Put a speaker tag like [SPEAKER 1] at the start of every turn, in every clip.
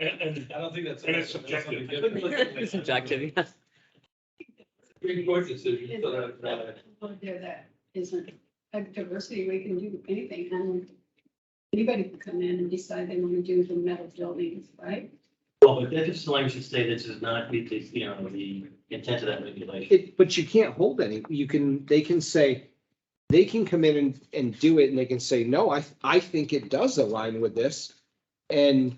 [SPEAKER 1] And, and,
[SPEAKER 2] I don't think that's.
[SPEAKER 1] And it's subjective.
[SPEAKER 2] It's
[SPEAKER 3] Subjective, yes.
[SPEAKER 2] Supreme Court decision, so that, uh,
[SPEAKER 4] Well, There that isn't, like diversity, we can do anything, and anybody can come in and decide they want to do the metal buildings, right?
[SPEAKER 5] Well, but that's just language to say this is not, meet the, you know, the intent of that regulation.
[SPEAKER 6] It, but you can't hold any, you can, they can say, they can come in and, and do it and they can say, no, I, I think it does align with this. And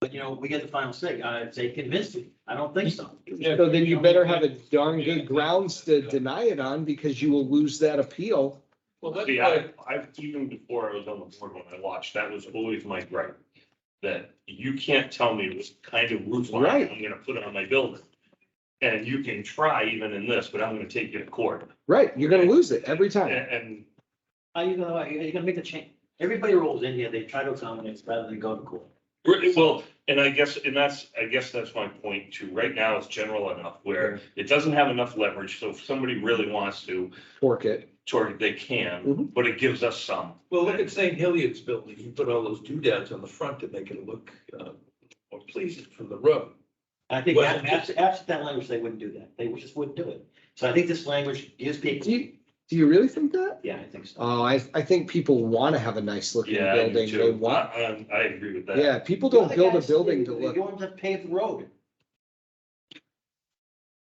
[SPEAKER 5] But, you know, we get the final say. I'd say convince me. I don't think so.
[SPEAKER 6] so then you better have a darn good grounds to deny it on because you will lose that appeal.
[SPEAKER 2] well, that's
[SPEAKER 1] see,
[SPEAKER 2] why,
[SPEAKER 1] I, I've, even before I was on the board when I watched, that was always my gripe. That you can't tell me what kind of roof line
[SPEAKER 6] Right.
[SPEAKER 1] I'm gonna put on my building. And you can try even in this, but I'm gonna take you to court.
[SPEAKER 6] Right, you're gonna lose it every
[SPEAKER 1] And,
[SPEAKER 6] time.
[SPEAKER 1] and
[SPEAKER 5] How you gonna, you're gonna make the change. Everybody rolls in here, they try to accommodate rather than go to court.
[SPEAKER 1] Right, Well, and I guess, and that's, I guess that's my point too. Right now it's general enough where it doesn't have enough leverage. So if somebody really wants to,
[SPEAKER 6] Fork it.
[SPEAKER 1] toward, they can,
[SPEAKER 6] Mhm.
[SPEAKER 1] but it gives us some.
[SPEAKER 2] well, look at St. Hilliard's building, you put all those doodads on the front to make it look, uh, more pleasing from the road.
[SPEAKER 5] I think
[SPEAKER 2] Well-
[SPEAKER 5] absent, absent that language, they wouldn't do that. They just wouldn't do it. So I think this language gives
[SPEAKER 6] Do
[SPEAKER 5] people,
[SPEAKER 6] you, do you really think that?
[SPEAKER 5] yeah, I think so.
[SPEAKER 6] Oh, I, I think people wanna have a nice looking
[SPEAKER 1] Yeah, I do
[SPEAKER 6] building. They
[SPEAKER 1] too. I,
[SPEAKER 6] want,
[SPEAKER 1] I'm- I agree with that.
[SPEAKER 6] yeah, people don't
[SPEAKER 5] The
[SPEAKER 6] build a
[SPEAKER 5] guys,
[SPEAKER 6] building
[SPEAKER 5] they-
[SPEAKER 6] to
[SPEAKER 5] they
[SPEAKER 6] look.
[SPEAKER 5] go on the paved road.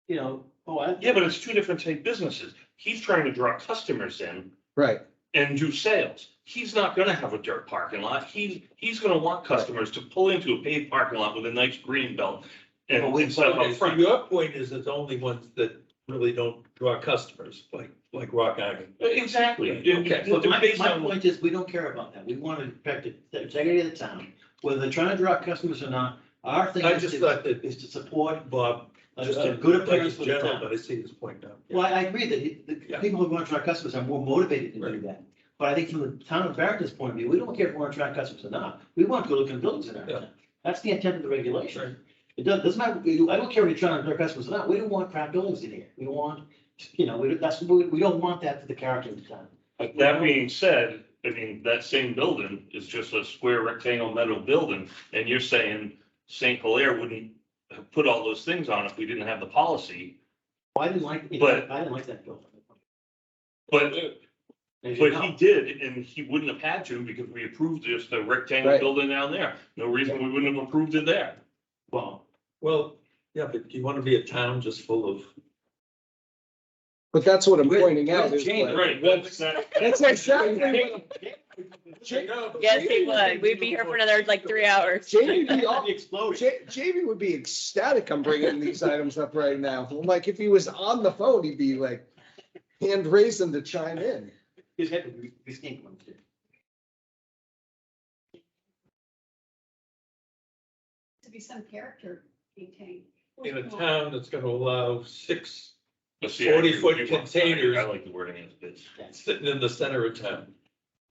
[SPEAKER 5] You know, oh, I,
[SPEAKER 1] Yeah, but it's two different type businesses. He's trying to draw customers in
[SPEAKER 6] Right,
[SPEAKER 1] and do sales. He's not gonna have a dirt parking lot. He's, he's gonna want customers to pull into a paved parking lot with a nice green belt. And
[SPEAKER 5] Well, we-
[SPEAKER 1] instead of
[SPEAKER 2] Okay,
[SPEAKER 1] up
[SPEAKER 2] so
[SPEAKER 1] front,
[SPEAKER 2] your point is it's only ones that really don't draw customers, like, like Rock Island.
[SPEAKER 1] exactly.
[SPEAKER 2] Okay, so
[SPEAKER 1] Well,
[SPEAKER 2] the-
[SPEAKER 1] they're
[SPEAKER 5] My,
[SPEAKER 1] based
[SPEAKER 5] my
[SPEAKER 1] on-
[SPEAKER 5] point is, we don't care about that. We want to protect it- the integrity of the town, whether they're trying to draw customers or not. Our thing
[SPEAKER 2] I
[SPEAKER 5] is
[SPEAKER 2] just
[SPEAKER 5] to-
[SPEAKER 2] thought that-
[SPEAKER 5] is to support
[SPEAKER 2] Bob.
[SPEAKER 5] just a
[SPEAKER 2] uh,
[SPEAKER 5] good
[SPEAKER 2] like
[SPEAKER 5] appearance
[SPEAKER 2] it's
[SPEAKER 5] for the
[SPEAKER 2] general,
[SPEAKER 5] town.
[SPEAKER 2] But I see his point now.
[SPEAKER 5] Well, I agree that it- the
[SPEAKER 2] Yeah.
[SPEAKER 5] people who want to attract customers are more motivated to do that. But I think from the town of Barrington's point of view, we don't care if we're attracting customers or not. We want good looking buildings in our
[SPEAKER 2] Yeah.
[SPEAKER 5] town. That's the intent of the regulation. It doesn't, doesn't matter, we- I don't care if you're trying to attract customers or not. We don't want crap buildings in here. We want, you know, we, don't- that's, we, we don't want that for the character of the town.
[SPEAKER 1] But That being said, I mean, that same building is just a square rectangle metal building, and you're saying St. Hilaire wouldn't have put all those things on if we didn't have the policy,
[SPEAKER 5] I didn't like,
[SPEAKER 1] But-
[SPEAKER 5] I didn't like that building.
[SPEAKER 1] but,
[SPEAKER 5] As you
[SPEAKER 1] but
[SPEAKER 5] know.
[SPEAKER 1] he did, and he wouldn't have had to because we approved just the rectangle
[SPEAKER 6] Right.
[SPEAKER 1] building down there. No reason we wouldn't have approved it there.
[SPEAKER 5] Well,
[SPEAKER 2] Well, yeah, but do you want to be a town just full of?
[SPEAKER 6] but that's what I'm
[SPEAKER 5] Where-
[SPEAKER 6] pointing out.
[SPEAKER 5] where's
[SPEAKER 6] is
[SPEAKER 5] Jane?
[SPEAKER 6] like-
[SPEAKER 1] Right, that's not.
[SPEAKER 6] That's exactly what
[SPEAKER 3] Yes, he would. We'd be here for another like three hours.
[SPEAKER 6] Jamie would be all,
[SPEAKER 5] the explosion.
[SPEAKER 6] Ja- Jamie would be ecstatic. I'm bringing these items up right now. Like if he was on the phone, he'd be like hand raising to chime in.
[SPEAKER 5] He's had to reskin one too.
[SPEAKER 4] To be some character maintained.
[SPEAKER 2] in a town that's gonna allow six
[SPEAKER 1] But see, I agree with
[SPEAKER 2] 40-foot
[SPEAKER 1] you on-
[SPEAKER 2] containers.
[SPEAKER 1] I like the wording as it is.
[SPEAKER 2] sitting in the center of town.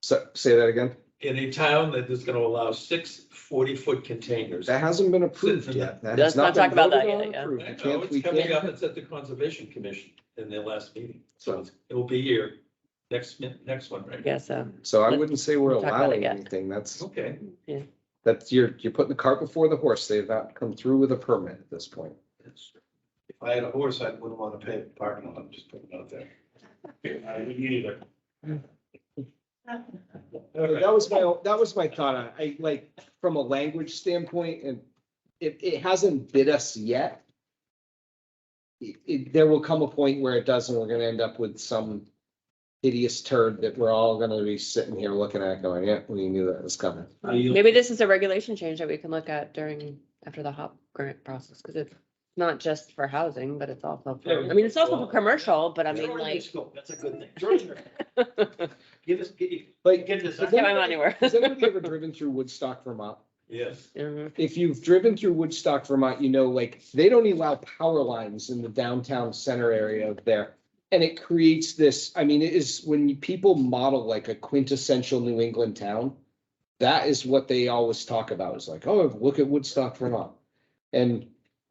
[SPEAKER 6] So say that again.
[SPEAKER 2] In a town that is gonna allow six 40 foot containers. I
[SPEAKER 6] That hasn't been approved yet. That has
[SPEAKER 3] Let's not
[SPEAKER 6] been
[SPEAKER 3] talk about that
[SPEAKER 6] voted on
[SPEAKER 3] yet, yeah.
[SPEAKER 6] or
[SPEAKER 2] know,
[SPEAKER 6] approved. We can't-
[SPEAKER 2] it's
[SPEAKER 6] we
[SPEAKER 2] coming up,
[SPEAKER 6] can't-
[SPEAKER 2] it's at the Conservation Commission in their last meeting, so
[SPEAKER 6] So,
[SPEAKER 2] it's- it will be here, next, mi- next one, right?
[SPEAKER 3] Yeah, so
[SPEAKER 6] so I wouldn't say we're
[SPEAKER 3] We'll talk about it
[SPEAKER 6] allowing
[SPEAKER 3] yet.
[SPEAKER 6] anything. That's,
[SPEAKER 2] Okay,
[SPEAKER 6] that's, you're, you're putting the cart before the horse. They've not come through with a permit at this point.
[SPEAKER 7] If I had a horse, I wouldn't want to pay the parking lot, just putting it out there.
[SPEAKER 1] I wouldn't either.
[SPEAKER 2] Okay.
[SPEAKER 6] That was my, that was my thought. on it. I like, from a language standpoint, and it, it hasn't bit us yet. It, it- there will come a point where it doesn't, we're gonna end up with some hideous turd that we're all gonna be sitting here looking at going, yeah, we knew that was coming.
[SPEAKER 3] maybe this is a regulation change that we can look at during, after the HOP grant process, because it's not just for housing, but it's also, for- I mean, it's also for commercial, but I mean,
[SPEAKER 5] Jordan
[SPEAKER 3] like.
[SPEAKER 5] is cool. That's a good thing. Jordan, give us, give
[SPEAKER 6] Like,
[SPEAKER 5] give this.
[SPEAKER 3] Let's get my money worth.
[SPEAKER 6] has anybody ever driven through Woodstock, Vermont?
[SPEAKER 2] yes.
[SPEAKER 3] Mhm.
[SPEAKER 6] if you've driven through Woodstock, Vermont, you know, like, they don't allow power lines in the downtown center area of there. And it creates this, I mean, it is when people model like a quintessential New England town. That is what they always talk about. It's like, oh, look at Woodstock, Vermont. And,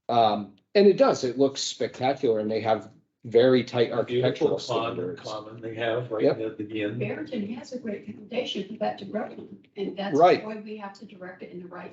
[SPEAKER 6] um, and it does, it looks spectacular and they have very tight
[SPEAKER 2] Beautiful
[SPEAKER 6] architectural
[SPEAKER 2] pond,
[SPEAKER 6] standards.
[SPEAKER 2] common they have right
[SPEAKER 6] Yep.
[SPEAKER 2] at the end.
[SPEAKER 4] Barrington has a great foundation for that to grow on, and that's
[SPEAKER 6] Right.
[SPEAKER 4] why we have to direct it in the right